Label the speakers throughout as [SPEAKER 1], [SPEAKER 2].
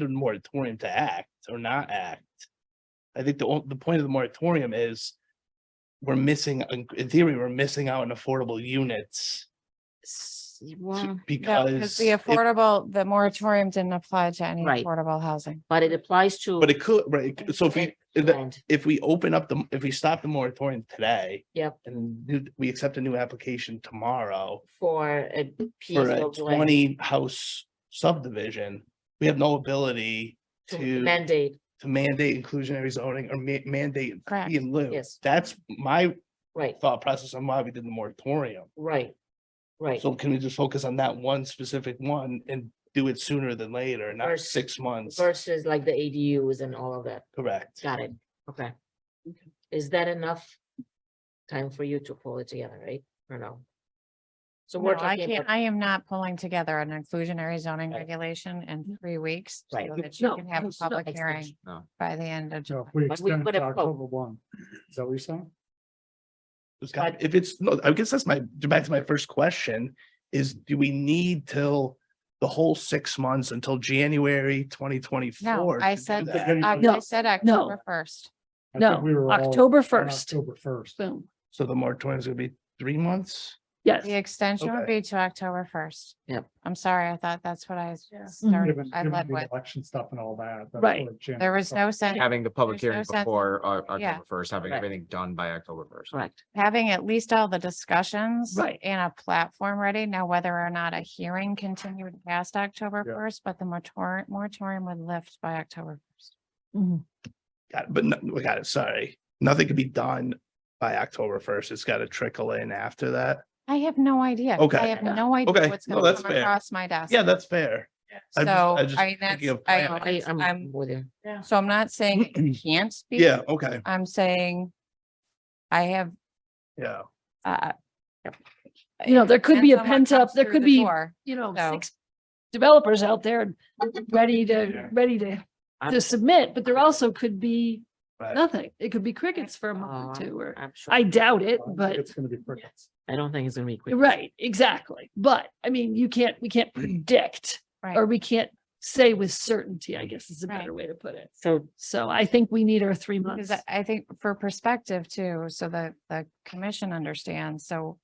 [SPEAKER 1] need a moratorium to act or not act. I think the, o- the point of the moratorium is we're missing, in theory, we're missing out on affordable units.
[SPEAKER 2] S-
[SPEAKER 1] to-
[SPEAKER 2] well,
[SPEAKER 1] Because.
[SPEAKER 3] Because the
[SPEAKER 1] if-
[SPEAKER 3] affordable, the moratorium didn't apply to any
[SPEAKER 2] Right.
[SPEAKER 3] affordable housing.
[SPEAKER 2] But it applies to.
[SPEAKER 1] But it could, right, it- so if we, if that-
[SPEAKER 2] land.
[SPEAKER 1] if we open up the, if we stop the moratorium today.
[SPEAKER 2] Yep.
[SPEAKER 1] And do- we accept a new application tomorrow
[SPEAKER 2] For a piece
[SPEAKER 1] for a
[SPEAKER 2] of land
[SPEAKER 1] twenty house subdivision, we have no ability
[SPEAKER 2] to
[SPEAKER 1] to-
[SPEAKER 2] mandate,
[SPEAKER 1] to mandate inclusionary zoning or ma- mandate
[SPEAKER 3] Correct.
[SPEAKER 1] fee in lieu.
[SPEAKER 2] Yes.
[SPEAKER 1] That's my
[SPEAKER 2] right,
[SPEAKER 1] thought process on why we did the moratorium.
[SPEAKER 2] right, right.
[SPEAKER 1] So can we just focus on that one specific one and do it sooner than later, not
[SPEAKER 2] Vers-
[SPEAKER 1] six months?
[SPEAKER 2] Versus like the ADUs and all of that.
[SPEAKER 1] Correct.
[SPEAKER 2] Got it. Okay. Is that enough time for you to pull it together, right? Or no? So
[SPEAKER 3] No,
[SPEAKER 2] we're
[SPEAKER 3] I
[SPEAKER 2] talking
[SPEAKER 3] can't,
[SPEAKER 2] about,
[SPEAKER 3] I am not pulling together an inclusionary zoning
[SPEAKER 2] Right. Mm-hmm.
[SPEAKER 3] regulation in three weeks. so
[SPEAKER 2] right?
[SPEAKER 3] that you
[SPEAKER 2] No,
[SPEAKER 3] can have a
[SPEAKER 2] it's not
[SPEAKER 3] public
[SPEAKER 2] extension.
[SPEAKER 3] hearing
[SPEAKER 4] No.
[SPEAKER 3] by the end of
[SPEAKER 5] So
[SPEAKER 3] July.
[SPEAKER 5] if we
[SPEAKER 2] But we
[SPEAKER 5] extend
[SPEAKER 2] put
[SPEAKER 5] to
[SPEAKER 2] a quote.
[SPEAKER 5] October one, is that what you're saying?
[SPEAKER 1] It's got- If it's, no, I guess that's my, back to my first question, is do we need till the whole six months until January twenty twenty-four?
[SPEAKER 3] I said uh,
[SPEAKER 5] Then
[SPEAKER 3] Oc-
[SPEAKER 5] you-
[SPEAKER 3] I said October first.
[SPEAKER 5] I think
[SPEAKER 6] no,
[SPEAKER 5] we were all
[SPEAKER 6] October
[SPEAKER 5] on
[SPEAKER 6] 1st.
[SPEAKER 5] October first.
[SPEAKER 6] Boom.
[SPEAKER 1] So the moratorium is gonna be three months?
[SPEAKER 6] Yes.
[SPEAKER 3] The extension would be to October first.
[SPEAKER 2] Yep. Mm-hmm.
[SPEAKER 3] I'm sorry, I thought that's what I s-
[SPEAKER 6] Yeah. Mhm.
[SPEAKER 3] started,
[SPEAKER 5] Given,
[SPEAKER 3] I
[SPEAKER 5] given
[SPEAKER 3] led
[SPEAKER 5] the
[SPEAKER 3] with.
[SPEAKER 5] election stuff and all that. that's
[SPEAKER 6] Right.
[SPEAKER 5] where Jan-
[SPEAKER 3] There was no sense,
[SPEAKER 4] Having the public
[SPEAKER 3] There's no
[SPEAKER 4] hearing
[SPEAKER 3] sense-
[SPEAKER 4] before uh,
[SPEAKER 3] Yeah.
[SPEAKER 4] October first, having
[SPEAKER 2] Correct.
[SPEAKER 4] everything done by October first.
[SPEAKER 2] Correct.
[SPEAKER 3] having at least all the discussions.
[SPEAKER 6] Right.
[SPEAKER 3] And a platform ready. Now, whether or not a hearing continued past October
[SPEAKER 5] Yeah.
[SPEAKER 3] first, but the moratorium, moratorium would lift by October first.
[SPEAKER 6] Mhm.
[SPEAKER 1] Got it, But no, we got it, sorry. Nothing can be done by October first. It's gotta trickle in after that.
[SPEAKER 3] I have no idea. I
[SPEAKER 1] Okay.
[SPEAKER 3] have no idea
[SPEAKER 1] Okay.
[SPEAKER 3] what's
[SPEAKER 1] No,
[SPEAKER 3] gonna
[SPEAKER 1] that's
[SPEAKER 3] come
[SPEAKER 1] fair.
[SPEAKER 3] across my desk.
[SPEAKER 1] Yeah, that's fair.
[SPEAKER 3] So,
[SPEAKER 1] I'm just- I'm just
[SPEAKER 3] I,
[SPEAKER 1] thinking
[SPEAKER 3] that's,
[SPEAKER 1] of
[SPEAKER 3] I,
[SPEAKER 1] planning.
[SPEAKER 2] I, I'm
[SPEAKER 3] I'm-
[SPEAKER 2] with you.
[SPEAKER 3] so I'm not saying it can't be.
[SPEAKER 1] Yeah, okay,
[SPEAKER 3] I'm saying I have,
[SPEAKER 1] yeah.
[SPEAKER 3] uh.
[SPEAKER 6] You know, there could be a
[SPEAKER 3] depends on what
[SPEAKER 6] pent up,
[SPEAKER 3] comes
[SPEAKER 6] there
[SPEAKER 3] through
[SPEAKER 6] could
[SPEAKER 3] the
[SPEAKER 6] be,
[SPEAKER 3] door.
[SPEAKER 6] you know,
[SPEAKER 3] so.
[SPEAKER 6] six developers out there ready to,
[SPEAKER 1] Yeah.
[SPEAKER 6] ready to,
[SPEAKER 2] I'm-
[SPEAKER 6] to submit, but there also could be
[SPEAKER 1] Right.
[SPEAKER 6] nothing. It could be crickets for a
[SPEAKER 2] Oh,
[SPEAKER 6] month or two, or
[SPEAKER 2] I'm sure.
[SPEAKER 6] I doubt
[SPEAKER 5] I
[SPEAKER 6] it,
[SPEAKER 5] don't think
[SPEAKER 6] but
[SPEAKER 5] It's gonna be pretty.
[SPEAKER 2] I don't think it's gonna be quick.
[SPEAKER 6] right, exactly. But I mean, you can't, we can't predict
[SPEAKER 3] Right.
[SPEAKER 6] or we can't say with certainty, I guess is a
[SPEAKER 3] Right.
[SPEAKER 6] better way to put it.
[SPEAKER 2] So,
[SPEAKER 6] So I think we need our three
[SPEAKER 3] Because
[SPEAKER 6] months.
[SPEAKER 3] I- I think for perspective too, so that the commission understands, so.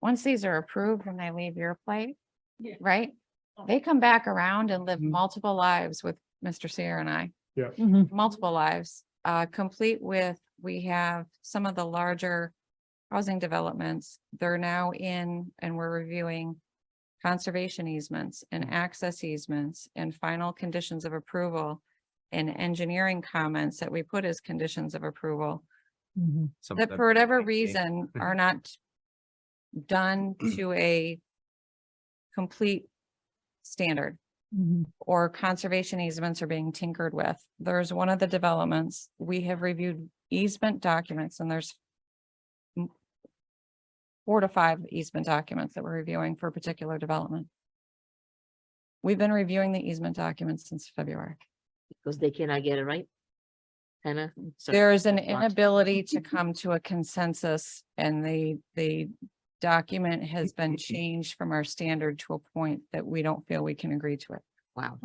[SPEAKER 3] Once these are approved, when they leave your plate,
[SPEAKER 6] Yeah.
[SPEAKER 3] right?
[SPEAKER 6] Oh.
[SPEAKER 3] They come back around and live
[SPEAKER 1] Mhm.
[SPEAKER 3] multiple lives with Mr. Seer and I.
[SPEAKER 6] Mhm.
[SPEAKER 3] multiple lives, uh, complete with, we have some of the larger housing developments. They're now in, and we're reviewing conservation easements and access easements and final conditions of approval and engineering comments that we put as conditions of approval
[SPEAKER 6] Mhm.
[SPEAKER 4] Some of
[SPEAKER 3] that
[SPEAKER 4] them
[SPEAKER 3] for whatever
[SPEAKER 4] might Mm-hmm. be-
[SPEAKER 3] reason are not done
[SPEAKER 4] Mm.
[SPEAKER 3] to a complete standard
[SPEAKER 6] Mhm.
[SPEAKER 3] or conservation easements are being tinkered with. There's one of the developments, we have reviewed easement documents and there's m- four to five easement documents that we're reviewing for a particular development. We've been reviewing the easement documents since February.
[SPEAKER 2] because they cannot get it right? Hannah? So-
[SPEAKER 3] There is an
[SPEAKER 2] that's not-
[SPEAKER 3] inability to come to a consensus and the, the document has been changed from our standard to a point that we don't feel we can agree to it.
[SPEAKER 2] Wow.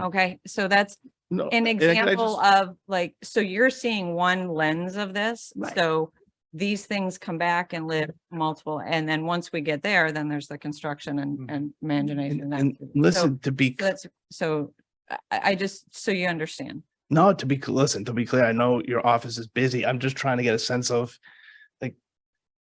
[SPEAKER 3] Okay, so that's
[SPEAKER 1] No,
[SPEAKER 3] an
[SPEAKER 1] Mm-hmm. and I- can I
[SPEAKER 3] example
[SPEAKER 1] just-
[SPEAKER 3] of like, so you're seeing one lens of this,
[SPEAKER 6] Right.
[SPEAKER 3] so these things come back and live multiple, and then once we get there, then there's the construction and,
[SPEAKER 1] Mhm.
[SPEAKER 3] and management.
[SPEAKER 1] And
[SPEAKER 3] and
[SPEAKER 1] and
[SPEAKER 3] that.
[SPEAKER 1] listen, to be,
[SPEAKER 3] So That's, so I, I I just, so you understand.
[SPEAKER 1] no, to be, listen, to be clear, I know your office is busy. I'm just trying to get a sense of like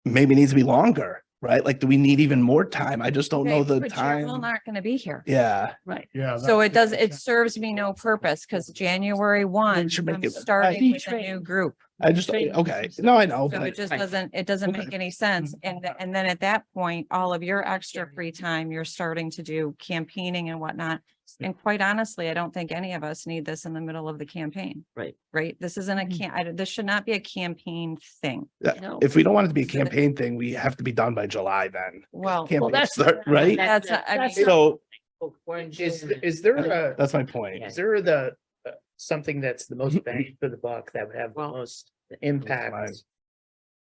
[SPEAKER 1] maybe it needs to be longer, right? Like, do we need even more time? I just don't know
[SPEAKER 3] Okay,
[SPEAKER 1] the
[SPEAKER 3] but you're all
[SPEAKER 1] time.
[SPEAKER 3] Not gonna be here,
[SPEAKER 1] Yeah.
[SPEAKER 6] Right.
[SPEAKER 5] Yeah.
[SPEAKER 3] so
[SPEAKER 5] that-
[SPEAKER 3] it does, it serves me no purpose, because January one,
[SPEAKER 1] should make
[SPEAKER 3] I'm
[SPEAKER 1] it- right.
[SPEAKER 3] starting with a new
[SPEAKER 6] Betrayed.
[SPEAKER 3] group.
[SPEAKER 1] I just,
[SPEAKER 6] Training
[SPEAKER 1] okay,
[SPEAKER 6] system.
[SPEAKER 1] no, I know,
[SPEAKER 3] So it
[SPEAKER 1] but
[SPEAKER 3] just
[SPEAKER 2] Right.
[SPEAKER 3] doesn't, it doesn't
[SPEAKER 1] Okay. Mm-hmm.
[SPEAKER 3] make any sense. And, th- and then at that point, all of your extra free time, you're starting to do campaigning and whatnot. And quite honestly, I don't think any of us need this in the middle of the campaign.
[SPEAKER 2] Right.
[SPEAKER 3] Right? This isn't a
[SPEAKER 1] Mm-hmm.
[SPEAKER 6] Mhm.
[SPEAKER 3] can, I, this should not be a campaign thing.
[SPEAKER 6] No.
[SPEAKER 1] if we don't want it to be a
[SPEAKER 3] So that-
[SPEAKER 1] campaign thing, we have to be done by July then.
[SPEAKER 3] Well,
[SPEAKER 1] Campaign
[SPEAKER 6] that's-
[SPEAKER 1] start, Right?
[SPEAKER 3] that's,
[SPEAKER 2] That's-
[SPEAKER 3] not- I
[SPEAKER 6] that's
[SPEAKER 3] mean,
[SPEAKER 6] not-
[SPEAKER 1] So
[SPEAKER 2] Oh, we're in
[SPEAKER 7] Is,
[SPEAKER 2] June.
[SPEAKER 7] is there
[SPEAKER 2] Okay.
[SPEAKER 7] a,
[SPEAKER 1] that's my point.
[SPEAKER 7] is there the, uh, something that's the most bang for the buck that would have the
[SPEAKER 2] Well,
[SPEAKER 7] most
[SPEAKER 1] mine.
[SPEAKER 7] impact?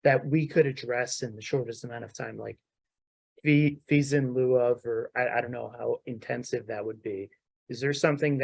[SPEAKER 7] That we could address in the shortest amount of time, like fee, fees in lieu of, or I, I don't know how intensive that would be. Is there something